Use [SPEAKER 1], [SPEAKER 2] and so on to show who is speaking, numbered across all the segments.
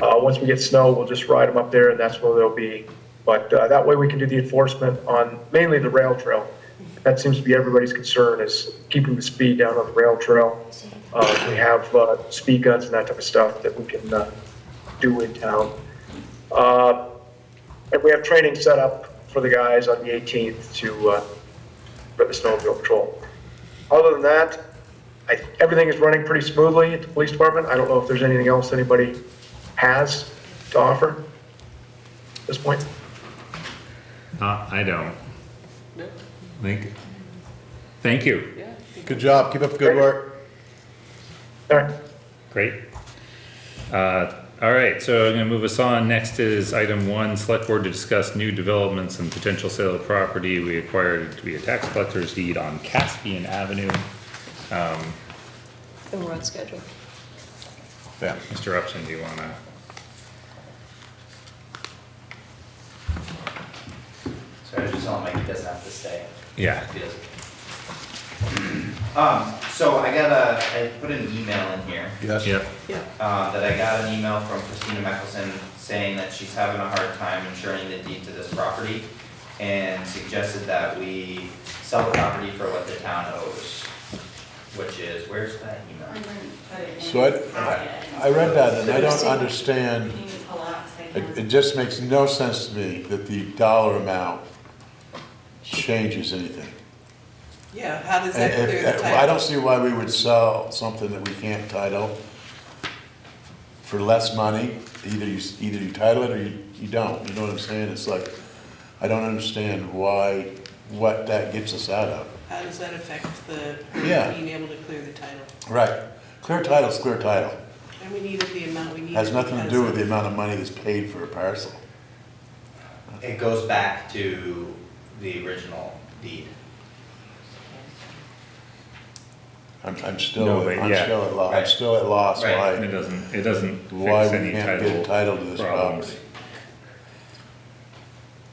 [SPEAKER 1] Uh, once we get snow, we'll just ride them up there and that's where they'll be. But, uh, that way we can do the enforcement on mainly the rail trail. That seems to be everybody's concern is keeping the speed down on the rail trail. Uh, we have, uh, speed guns and that type of stuff that we can, uh, do in town. Uh, and we have training set up for the guys on the 18th to, uh, for the snowmobile patrol. Other than that, I, everything is running pretty smoothly at the police department. I don't know if there's anything else anybody has to offer at this point.
[SPEAKER 2] Uh, I don't. Thank, thank you.
[SPEAKER 3] Good job. Keep up the good work.
[SPEAKER 1] All right.
[SPEAKER 2] Great. Uh, all right, so I'm gonna move us on. Next is item one, select board to discuss new developments and potential sale of property we acquired via tax collector's deed on Caspian Avenue.
[SPEAKER 4] And we're on schedule.
[SPEAKER 3] Yeah.
[SPEAKER 2] Mr. Upson, do you wanna?
[SPEAKER 5] So I was just telling Mike he doesn't have to stay.
[SPEAKER 2] Yeah.
[SPEAKER 5] if he doesn't. Um, so I got a, I put an email in here,
[SPEAKER 3] Yes.
[SPEAKER 2] Yep.
[SPEAKER 5] uh, that I got an email from Christina Mickelson saying that she's having a hard time insuring the deed to this property and suggested that we sell the property for what the town owes, which is, where's that email?
[SPEAKER 3] So I, I- I read that and I don't understand. It, it just makes no sense to me that the dollar amount changes anything.
[SPEAKER 6] Yeah, how does that
[SPEAKER 3] And
[SPEAKER 6] clear the
[SPEAKER 3] if- uh, I
[SPEAKER 6] title?
[SPEAKER 3] don't see why we would sell something that we can't title for less money. Either you, s- either you title it or you, you don't. You know what I'm saying? It's like, I don't understand why, what that gets us out of.
[SPEAKER 6] How does that affect the,
[SPEAKER 3] Yeah.
[SPEAKER 6] being able to clear the title?
[SPEAKER 3] Right. Clear title's clear title.
[SPEAKER 6] And we needed the amount we needed.
[SPEAKER 3] Has nothing to
[SPEAKER 6] because
[SPEAKER 3] do with the
[SPEAKER 6] of-
[SPEAKER 3] amount of money that's paid for a parcel.
[SPEAKER 5] It goes back to the original deed.
[SPEAKER 3] I'm, I'm still,
[SPEAKER 2] No, but
[SPEAKER 3] I'm
[SPEAKER 2] yeah.
[SPEAKER 3] still at loss, I'm
[SPEAKER 5] Right.
[SPEAKER 3] still at loss
[SPEAKER 5] Right.
[SPEAKER 2] It
[SPEAKER 3] why,
[SPEAKER 2] doesn't, it doesn't
[SPEAKER 3] why
[SPEAKER 2] fix
[SPEAKER 3] we
[SPEAKER 2] any
[SPEAKER 3] can't get
[SPEAKER 2] title
[SPEAKER 3] title to this
[SPEAKER 2] problems.
[SPEAKER 3] property.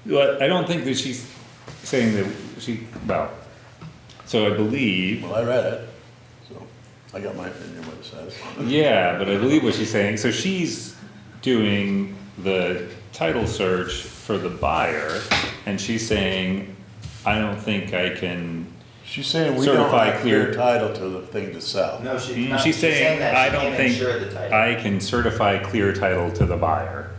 [SPEAKER 2] Well, I don't think that she's saying that she, well, so I believe,
[SPEAKER 3] Well, I read it, so I got my opinion what it says.
[SPEAKER 2] yeah, but I believe what she's saying, so she's doing the title search for the buyer, and she's saying, I don't think I can,
[SPEAKER 3] She's saying we don't
[SPEAKER 2] Certify
[SPEAKER 3] have clear
[SPEAKER 2] clear.
[SPEAKER 3] title to the thing to sell.
[SPEAKER 5] No, she,
[SPEAKER 2] Mm,
[SPEAKER 5] no,
[SPEAKER 2] she's saying,
[SPEAKER 5] that
[SPEAKER 2] I
[SPEAKER 5] she
[SPEAKER 2] don't
[SPEAKER 5] can't
[SPEAKER 2] think
[SPEAKER 5] insure the title.
[SPEAKER 2] I can certify clear title to the buyer.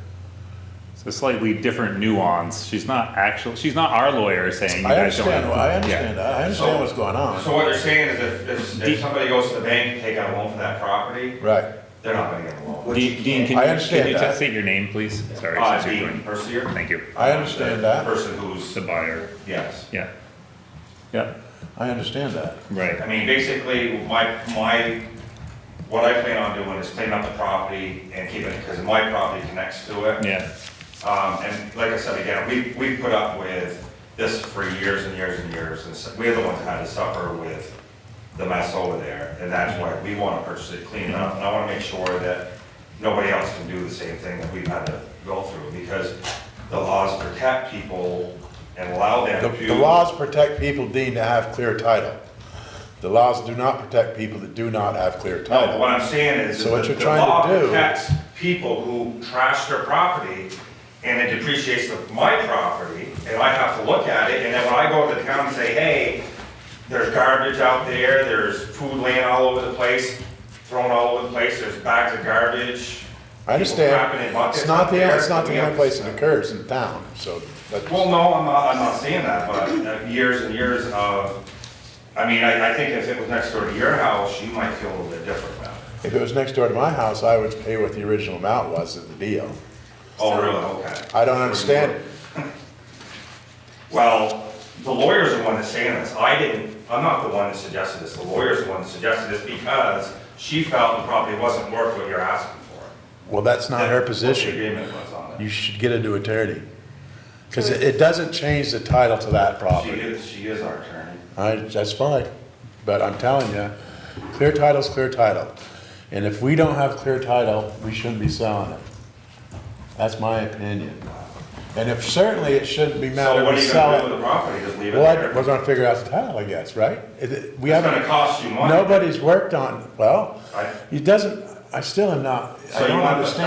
[SPEAKER 2] So slightly different nuance, she's not actual, she's not our lawyer saying you
[SPEAKER 3] I
[SPEAKER 2] guys don't.
[SPEAKER 3] understand,
[SPEAKER 2] have-
[SPEAKER 3] I
[SPEAKER 2] yeah.
[SPEAKER 3] understand, I understand what's going
[SPEAKER 7] So
[SPEAKER 3] on.
[SPEAKER 7] what you're saying is if, if,
[SPEAKER 2] Deep.
[SPEAKER 7] if somebody goes to the bank to take out a loan for that property,
[SPEAKER 3] Right,
[SPEAKER 7] they're not gonna get a loan.
[SPEAKER 5] Which you
[SPEAKER 2] Dean, Dean,
[SPEAKER 5] can't.
[SPEAKER 3] I
[SPEAKER 2] can you,
[SPEAKER 3] understand
[SPEAKER 2] can you
[SPEAKER 3] that.
[SPEAKER 2] just state your name, please? Sorry,
[SPEAKER 7] Uh,
[SPEAKER 2] since you're
[SPEAKER 7] Dean
[SPEAKER 2] doing,
[SPEAKER 7] Percier?
[SPEAKER 2] thank you.
[SPEAKER 3] I understand that.
[SPEAKER 7] The person who's,
[SPEAKER 2] The buyer,
[SPEAKER 7] yes.
[SPEAKER 2] yeah. Yeah,
[SPEAKER 3] I understand that.
[SPEAKER 7] I
[SPEAKER 2] right,
[SPEAKER 7] mean, basically, my, my, what I plan on doing is cleaning up the property and keeping it, because my property connects to it.
[SPEAKER 2] yeah,
[SPEAKER 7] Um, and like I said again, we, we put up with this for years and years and years, and so- we're the ones that had to suffer with the mess over there, and that's why we wanna purchase it clean up, and I wanna make sure that nobody else can do the same thing that we've had to go through, because the laws protect people and allow
[SPEAKER 3] The,
[SPEAKER 7] them to.
[SPEAKER 3] the laws protect people deemed to have clear title. The laws do not protect people that do not have clear
[SPEAKER 7] No, but what
[SPEAKER 3] title.
[SPEAKER 7] I'm saying is.
[SPEAKER 3] So what
[SPEAKER 7] that
[SPEAKER 3] you're
[SPEAKER 7] the
[SPEAKER 3] trying to
[SPEAKER 7] law
[SPEAKER 3] do-
[SPEAKER 7] Protects people who trash their property and it depreciates the- my property and I have to look at it. And then when I go to the town and say, hey, there's garbage out there, there's food laying all over the place, thrown all over the place, there's bags of garbage.
[SPEAKER 3] I
[SPEAKER 7] people crapping
[SPEAKER 3] understand,
[SPEAKER 7] in buckets
[SPEAKER 3] it's not
[SPEAKER 7] out
[SPEAKER 3] the,
[SPEAKER 7] there.
[SPEAKER 3] it's not
[SPEAKER 7] We
[SPEAKER 3] the
[SPEAKER 7] have
[SPEAKER 3] only
[SPEAKER 7] to-
[SPEAKER 3] place it occurs in town, so that's.
[SPEAKER 7] well, no, I'm not, I'm not saying that, but uh, years and years of, I mean, I, I think if it was next door to your house, you might feel a little bit different about it.
[SPEAKER 3] If it was next door to my house, I would pay what the original amount was of the deal.
[SPEAKER 7] Oh, really? Okay.
[SPEAKER 3] I don't understand.
[SPEAKER 7] Well, the lawyer's the one that's saying this. I didn't, I'm not the one that suggested this. The lawyer's the one that suggested this because she felt it probably wasn't worth what you're asking for.
[SPEAKER 3] Well, that's not her
[SPEAKER 7] That's what the
[SPEAKER 3] position.
[SPEAKER 7] agreement was on it.
[SPEAKER 3] You should get into attorney. Because it, it doesn't change the title to that
[SPEAKER 7] She
[SPEAKER 3] property.
[SPEAKER 7] is, she is our attorney.
[SPEAKER 3] I, that's fine, but I'm telling you, clear title's clear title. And if we don't have clear title, we shouldn't be selling it. That's my opinion. And if, certainly it shouldn't be
[SPEAKER 7] So
[SPEAKER 3] matter
[SPEAKER 7] what
[SPEAKER 3] we
[SPEAKER 7] are you gonna do
[SPEAKER 3] sell
[SPEAKER 7] with
[SPEAKER 3] it.
[SPEAKER 7] the property? Just leave it
[SPEAKER 3] Well, I- we're
[SPEAKER 7] there?
[SPEAKER 3] gonna figure out the title, I guess, right? Is it- We
[SPEAKER 7] It's gonna
[SPEAKER 3] haven't,
[SPEAKER 7] cost you money.
[SPEAKER 3] nobody's worked on, well,
[SPEAKER 7] I-
[SPEAKER 3] it doesn't, I still am not,
[SPEAKER 7] So
[SPEAKER 3] I
[SPEAKER 7] you
[SPEAKER 3] don't
[SPEAKER 7] want the
[SPEAKER 3] understand.